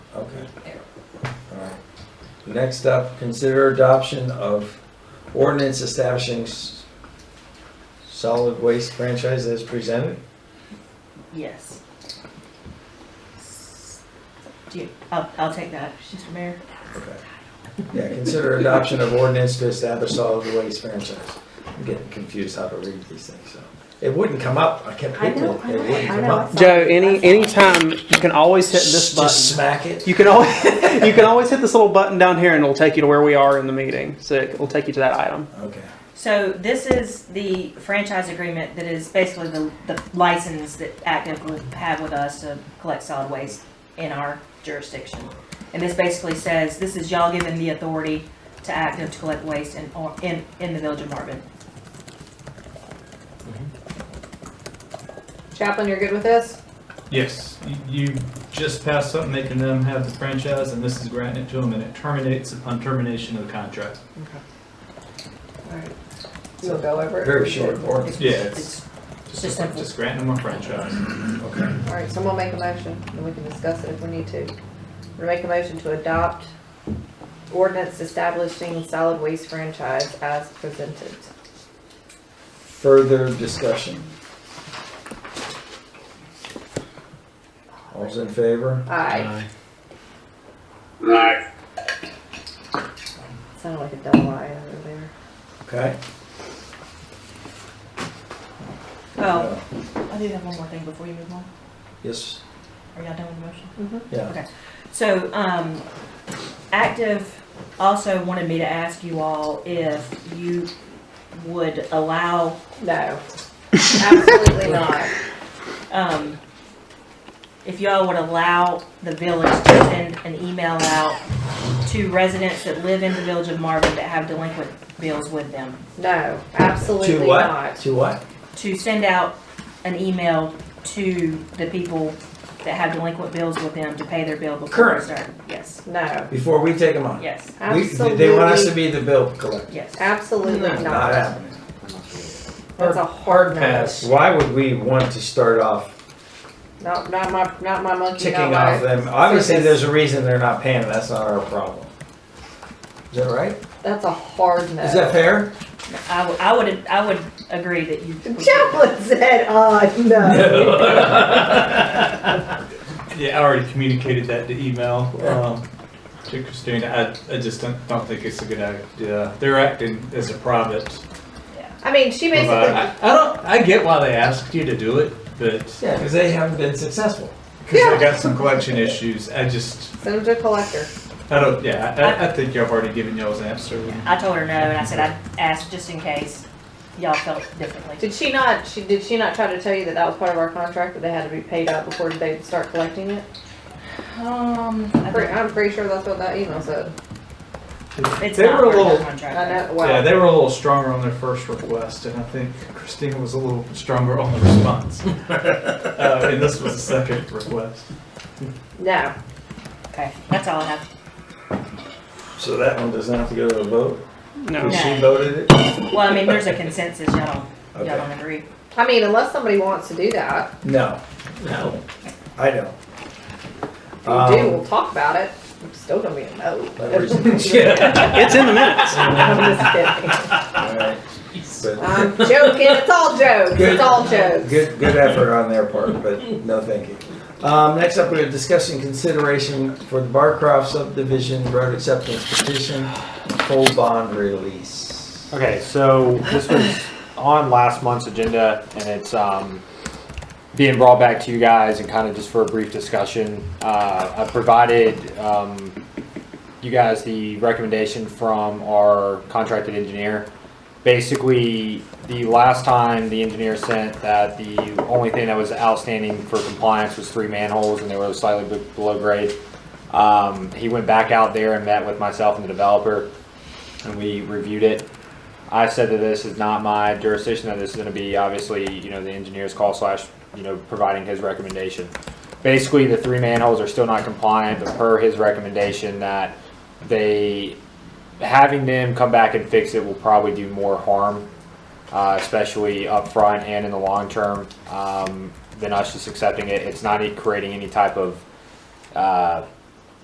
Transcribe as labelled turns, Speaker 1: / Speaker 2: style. Speaker 1: Alright. Next up, consider adoption of ordinance establishing s- solid waste franchise as presented.
Speaker 2: Yes. Do you, I'll, I'll take that, Mr. Mayor.
Speaker 1: Okay. Yeah, consider adoption of ordinance to establish solid waste franchise. I'm getting confused how to read these things, so. It wouldn't come up, I kept
Speaker 2: I
Speaker 1: hitting
Speaker 2: know,
Speaker 1: it,
Speaker 2: I
Speaker 1: it
Speaker 2: know,
Speaker 1: wouldn't
Speaker 2: I
Speaker 1: come
Speaker 2: know.
Speaker 1: up.
Speaker 3: Joe, any any time you can always hit this
Speaker 1: Just just
Speaker 3: button.
Speaker 1: smack it.
Speaker 3: You can always you can always hit this little button down here, and it'll take you to where we are in the meeting. So it'll take you to that item.
Speaker 1: Okay,
Speaker 2: So this is the franchise agreement that is basically the, the license that Active would have with us to collect solid waste in our jurisdiction. And this basically says, this is y'all giving the authority to Active to collect waste in, or- in, in the village of Marvin.
Speaker 4: Chaplain, you're good with this?
Speaker 5: Yes, you- you just passed something making them have the franchise, and this is granting it to them, and it terminates upon termination of the contract.
Speaker 4: We'll go over it.
Speaker 1: very short ordinance.
Speaker 2: It's-
Speaker 5: Yeah,
Speaker 2: it's-
Speaker 5: it's
Speaker 2: Just
Speaker 5: just,
Speaker 2: simple.
Speaker 5: just granting them a franchise.
Speaker 1: Okay.
Speaker 4: All right, someone make a motion, and we can discuss it if we need to. We're gonna make a motion to adopt ordinance establishing solid waste franchise as presented.
Speaker 1: Further discussion. All's in favor?
Speaker 4: Aye.
Speaker 6: Aye.
Speaker 4: Sounded like a double aye over there.
Speaker 1: Okay.
Speaker 2: Oh,
Speaker 1: Uh,
Speaker 2: I do have one more thing before you move on.
Speaker 1: Yes,
Speaker 2: Are y'all done with the motion?
Speaker 1: yeah.
Speaker 2: So, um, Active also wanted me to ask you all if you would allow,
Speaker 4: No, absolutely not.
Speaker 2: um, if y'all would allow the village to send an email out to residents that live in the village of Marvin that have delinquent bills with them,
Speaker 4: No,
Speaker 1: To
Speaker 4: absolutely
Speaker 1: what?
Speaker 4: not.
Speaker 1: To what?
Speaker 2: to send out an email to the people that have delinquent bills with them to pay their bill before
Speaker 1: Current.
Speaker 2: they start. Yes,
Speaker 4: No,
Speaker 1: Before we take them on?
Speaker 2: yes,
Speaker 1: We- They want us to
Speaker 4: absolutely,
Speaker 1: be the bill collector.
Speaker 2: yes.
Speaker 4: Uh, absolutely
Speaker 1: Not
Speaker 4: not.
Speaker 1: happening.
Speaker 4: That's a hard no.
Speaker 5: pass.
Speaker 1: Why would we want to start off
Speaker 4: Not, not my, not my monkey,
Speaker 1: ticking
Speaker 4: not
Speaker 1: off
Speaker 4: my.
Speaker 1: them? Obviously,
Speaker 4: circus.
Speaker 1: there's a reason they're not paying, that's not our problem. Is that right?
Speaker 4: That's a hard no.
Speaker 1: Is that fair?
Speaker 2: I would, I would, I would agree that you.
Speaker 4: Chaplain said, uh, no.
Speaker 5: Yeah, I already communicated that to email, um, to Christina, I, I just don't, don't think it's a good idea. They're acting as a private
Speaker 4: I mean, she
Speaker 5: provider.
Speaker 4: basically,
Speaker 5: I, I don't, I get why they asked you to do it, but, cause
Speaker 1: Yeah, because they haven't been successful.
Speaker 5: they got some collection issues, I just,
Speaker 4: send them to collector.
Speaker 5: I don't, yeah, I- I, I think y'all have already given y'all's answer.
Speaker 2: I told her no, and I said I'd ask just in case y'all felt differently.
Speaker 4: Did she not, she, did she not try to tell you that that was part of our contract, that they had to be paid out before they would start collecting it?
Speaker 2: Um,
Speaker 4: I'm
Speaker 2: I
Speaker 4: pretty,
Speaker 2: think
Speaker 4: I'm pretty sure that's what that email said.
Speaker 2: it's
Speaker 5: They
Speaker 2: not
Speaker 5: were a
Speaker 2: part of the
Speaker 5: little-
Speaker 4: I
Speaker 2: contract.
Speaker 4: know,
Speaker 5: Yeah,
Speaker 4: wow.
Speaker 5: they were a little stronger on their first request, and I think Christina was a little stronger on the response. uh, and this was the second request.
Speaker 4: No,
Speaker 2: Okay, that's all I have.
Speaker 1: So that one doesn't have to go to a vote?
Speaker 3: No.
Speaker 1: Because Oh, she
Speaker 2: No.
Speaker 1: voted it?
Speaker 2: Well, I mean, there's a consensus, y'all don't, y'all
Speaker 1: Okay.
Speaker 2: don't agree.
Speaker 4: I mean, unless somebody wants to do that,
Speaker 1: No. No. I don't.
Speaker 4: if you do,
Speaker 1: Um,
Speaker 4: we'll talk about it. I'm still gonna be a no. I'm just
Speaker 1: Yeah.
Speaker 3: It's in the minutes.
Speaker 4: kidding.
Speaker 1: All right. But
Speaker 4: I'm joking, it's all jokes,
Speaker 1: Good.
Speaker 4: it's all jokes.
Speaker 1: Good, good effort on their part, but no, thank you. Um, next up, we have discussion consideration for the Barcroft subdivision road acceptance petition, full bond release.
Speaker 7: Okay, so this was on last month's agenda, and it's um, being brought back to you guys and kind of just for a brief discussion. Uh, I provided um, you guys the recommendation from our contracted engineer. Basically, the last time the engineer sent that the only thing that was outstanding for compliance was three manholes, and they were slightly be- below grade. Um, he went back out there and met with myself and the developer, and we reviewed it. I said that this is not my jurisdiction, that this is gonna be obviously, you know, the engineer's call slash, you know, providing his recommendation. Basically, the three manholes are still not compliant, but per his recommendation that they, having them come back and fix it will probably do more harm, uh, especially upfront and in the long term, um, than us just accepting it. It's not creating any type of, uh,